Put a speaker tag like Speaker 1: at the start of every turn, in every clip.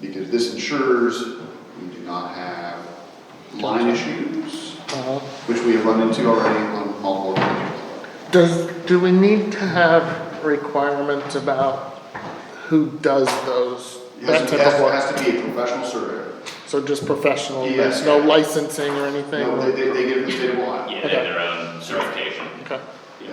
Speaker 1: because this ensures we do not have line issues,
Speaker 2: Uh-huh.
Speaker 1: which we have run into already on multiple occasions.
Speaker 2: Does, do we need to have requirements about who does those?
Speaker 1: It
Speaker 2: That
Speaker 1: has, it
Speaker 2: type of
Speaker 1: has-
Speaker 2: work?
Speaker 1: it has to be a professional surveyor.
Speaker 2: So just professional,
Speaker 1: Yes.
Speaker 2: there's no licensing or
Speaker 1: No, they,
Speaker 2: anything?
Speaker 1: they, they give the state of Ohio.
Speaker 3: Yeah, they have their own certification.
Speaker 2: Okay.
Speaker 1: Yeah.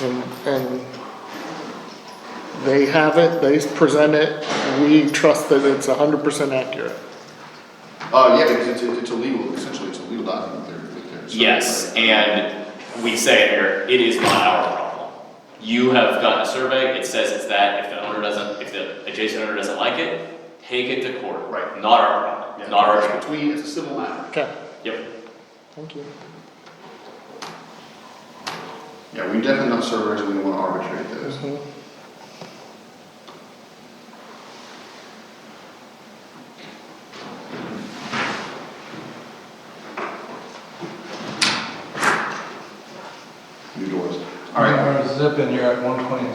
Speaker 2: And, and they have it, they present it, we trust that it's hundred percent accurate.
Speaker 1: Uh, yeah, because it's, it's a legal, essentially, it's a legal document there, right there. So-
Speaker 3: Yes, and we say here, it is not our problem. You have gotten a survey, it says it's that, if the owner doesn't, if the adjacent owner doesn't like it, take it to court.
Speaker 1: Right.
Speaker 3: Not our problem,
Speaker 1: Yeah,
Speaker 3: not our,
Speaker 1: it's
Speaker 3: job.
Speaker 1: Between, it's a civil matter.
Speaker 2: Okay,
Speaker 3: yep,
Speaker 2: thank you.
Speaker 1: Yeah, we definitely not surveyors, we don't wanna arbitrate those.
Speaker 2: Mhm.
Speaker 1: New doors. All right,
Speaker 4: Alright, zipping, you're at one twenty.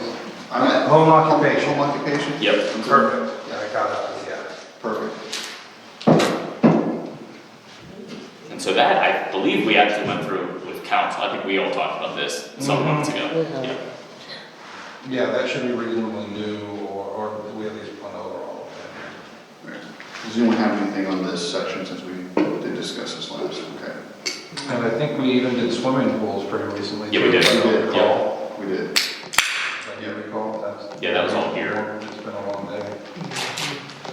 Speaker 1: I'm at.
Speaker 4: Home occupation.
Speaker 1: Home occupation?
Speaker 3: yep.
Speaker 4: Perfect. Yeah, I got that, yeah.
Speaker 1: Perfect.
Speaker 3: And so that, I believe we actually went through with council, I think we all talked about this some
Speaker 4: Mhm.
Speaker 3: months ago.
Speaker 2: Yeah.
Speaker 3: Yeah.
Speaker 4: Yeah, that should be reasonably new, or, or we at least went over all of
Speaker 1: Right. Does anyone have anything on this section since we did discuss this last? Okay.
Speaker 4: it. And I think we even did swimming pools pretty recently.
Speaker 3: Yeah, we
Speaker 4: too,
Speaker 3: did.
Speaker 4: if I
Speaker 1: We did,
Speaker 4: recall.
Speaker 1: We did.
Speaker 4: If I do recall, that's.
Speaker 3: Yeah, that was all here.
Speaker 4: It's been a long day.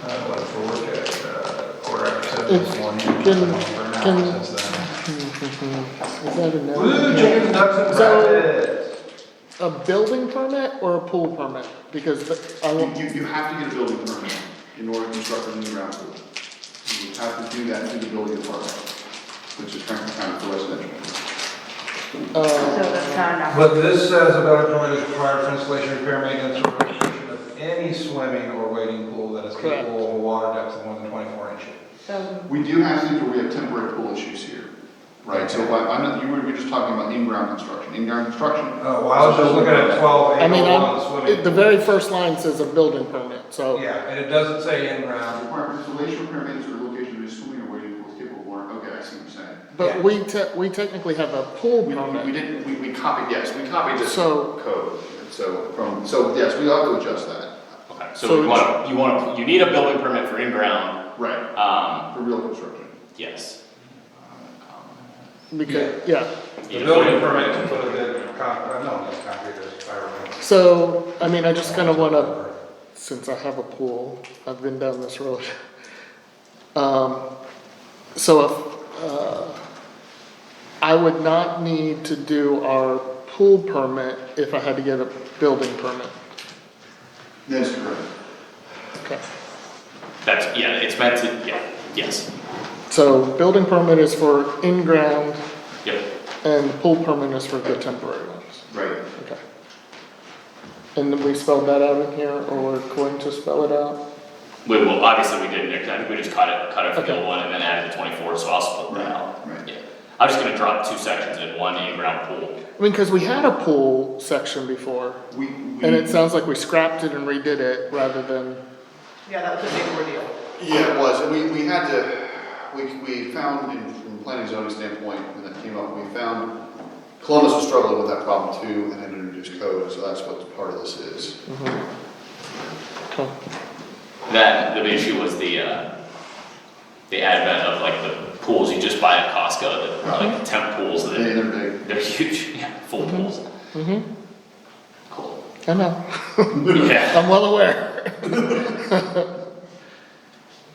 Speaker 4: Uh, went to work at, uh, quarter after seven this morning.
Speaker 2: Can-
Speaker 4: Been on for an hour
Speaker 2: can-
Speaker 4: since then.
Speaker 2: Is that a
Speaker 4: Woo,
Speaker 2: no?
Speaker 4: chickens, ducks, and
Speaker 2: So-
Speaker 4: rabbits.
Speaker 2: A building permit or a pool permit? Because the- I
Speaker 1: You,
Speaker 2: won't,
Speaker 1: you, you have to get a building permit in order to construct a new ground pool. You have to do that through the building department, which is frankly kind of residential.
Speaker 2: uh,
Speaker 5: So that's not enough.
Speaker 4: But this says about a permit is required for installation, repair, maintenance, or restoration of any swimming or wading pool that is
Speaker 2: Correct.
Speaker 4: capable of a water depth of more than twenty-four inches.
Speaker 6: Um,
Speaker 5: So,
Speaker 1: We do have to, we have temporary pool issues here, right? So I, I'm not, you were, you were just talking about in-ground construction. In-ground construction,
Speaker 4: Oh, well, I was just looking at twelve
Speaker 2: I
Speaker 4: eight
Speaker 2: mean,
Speaker 4: oh
Speaker 2: I'm,
Speaker 4: one swimming.
Speaker 2: it- the
Speaker 4: pool.
Speaker 2: very first line says a building permit, so,
Speaker 4: Yeah, and it doesn't say in ground.
Speaker 1: requirements, installation, repair, maintenance, or location of a swimming or wading pool is capable of water. Okay, I see what you're saying.
Speaker 4: Yeah.
Speaker 2: but we te- we technically have a pool
Speaker 1: We, we- we
Speaker 2: permit.
Speaker 1: didn't, we, we copied, yes, we copied this
Speaker 2: So-
Speaker 1: code, so from, so yes, we ought to adjust that.
Speaker 3: Okay,
Speaker 2: So
Speaker 3: so we
Speaker 2: it's-
Speaker 3: want, you want, you need a building permit for in-ground,
Speaker 1: Right.
Speaker 3: um,
Speaker 1: For real construction.
Speaker 3: yes.
Speaker 2: Because, yeah,
Speaker 4: The building permit to put a bit of concrete, uh, no, not concrete, it's fire.
Speaker 2: so, I mean, I just kinda wanna, since I have a pool, I've been down this road. Um, so if, uh, I would not need to do our pool permit if I had to get a building permit.
Speaker 1: That's correct.
Speaker 2: Okay.
Speaker 3: That's, yeah, it's meant to, yeah, yes,
Speaker 2: So building permit is for in-ground
Speaker 3: yep.
Speaker 2: and the pool permit is for the temporary ones.
Speaker 1: Right.
Speaker 2: Okay. And then we spelled that out in here, or we're going to spell it out?
Speaker 3: We will, obviously we didn't, because I think we just cut it, cut it from the
Speaker 2: Okay.
Speaker 3: old one and then added the twenty-four, so I'll split that out.
Speaker 1: Right, right.
Speaker 3: Yeah. I'm just gonna drop two sections in, one in-ground pool.
Speaker 2: I mean, cause we had a pool section before,
Speaker 1: We, we.
Speaker 2: and it sounds like we scrapped it and redid it rather than,
Speaker 6: Yeah, that was a big ordeal.
Speaker 1: Yeah, it was, and we, we had to, we, we found, in- from a planning zoning standpoint, when that came up, we found Columbus was struggling with that problem too, and had to introduce code, so that's what part of this is.
Speaker 2: okay,
Speaker 3: That, the issue was the, uh, the advent of like the pools you just buy at Costco, the, like the temp pools,
Speaker 1: And
Speaker 3: that
Speaker 1: they're big.
Speaker 3: they're huge, yeah, full pools. Cool.
Speaker 2: I know,
Speaker 3: Yeah,
Speaker 2: I'm well aware.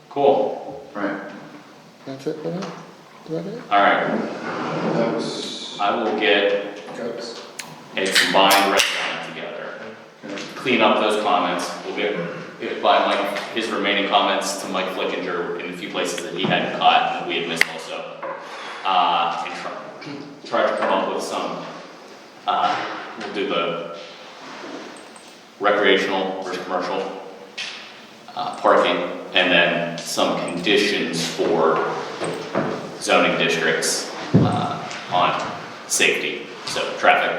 Speaker 3: cool,
Speaker 1: Right,
Speaker 2: That's it, for that? Is that it?
Speaker 3: alright,
Speaker 1: that was,
Speaker 3: I will get a combined breakdown together.
Speaker 1: okay.
Speaker 3: clean up those comments, we'll get, get by Mike, his remaining comments to Mike Flickinger in a few places that he hadn't caught and that we had missed also. Uh, and try, try to come up with some, uh, we'll do the recreational versus commercial, uh, parking, and then some conditions for zoning districts, uh, on safety, so traffic,